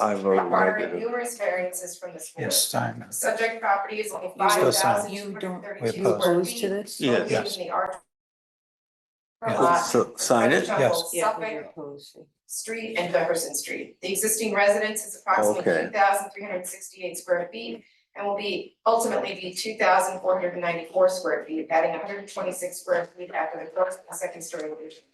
I voted requiring negative. numerous variances from this board. Yes, time. Subject property is only You five still thousand sign. two You hundred don't- thirty-two We're square opposed to feet. this? Yes. located in the R- Yes. lot So sign it? Yes. Yeah, Suffolk we opposed. Street and Jefferson Street. The existing residence is approximately Okay. two thousand three hundred sixty-eight square feet and will be ultimately be two thousand four hundred ninety-four square feet, adding hundred and twenty-six square feet after the first and second story addition.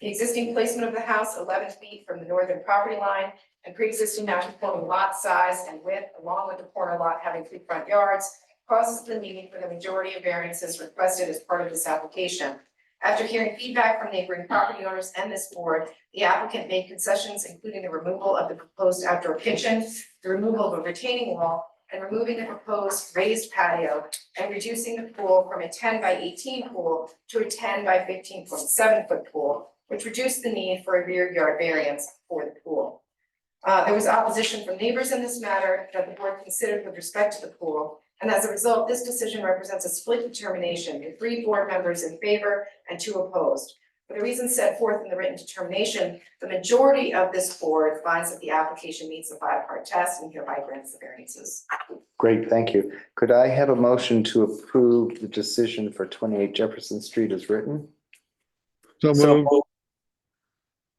The existing placement of the house eleven feet from the northern property line and pre-existing non-conforming lot size and width, along with the corner lot having three front yards, causes the need for the majority of variances requested as part of this application. After hearing feedback from neighboring property owners and this board, the applicant made concessions, including the removal of the proposed outdoor kitchen, the removal of a retaining wall, and removing the proposed raised patio, and reducing the pool from a ten by eighteen pool to a ten by fifteen point seven foot pool, which reduced the need for a rear yard variance for the pool. Uh, there was opposition from neighbors in this matter that the board considered with respect to the pool, and as a result, this decision represents a split determination, with three board members in favor and two opposed. For the reasons set forth in the written determination, the majority of this board finds that the application meets the five-part test and hereby grants the variances. Great, thank you. Could I have a motion to approve the decision for twenty-eight Jefferson Street as written? So moved.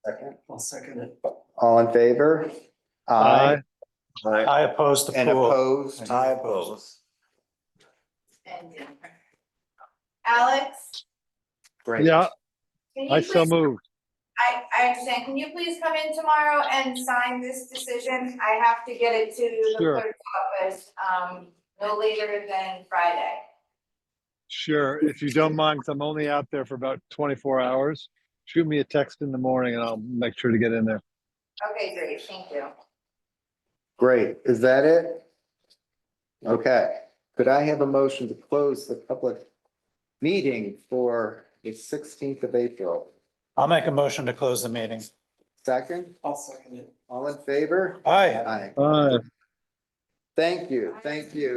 Second. I'll second it. All in favor? Aye. I I oppose the And pool. opposed? I oppose. And Alex, Great. Yeah, Can I you so please, moved. I, I understand, can you please come in tomorrow and sign this decision? I have to get it to the Sure. clerk's office, um, no later than Friday. Sure. If you don't mind, 'cause I'm only out there for about 24 hours. Shoot me a text in the morning and I'll make sure to get in there. Okay, great, thank you. Great, is that it? Okay, could I have a motion to close the public meeting for the sixteenth of April? I'll make a motion to close the meeting. Second, I'll second it. all in favor? Aye. Aye. Aye. Thank you, thank you.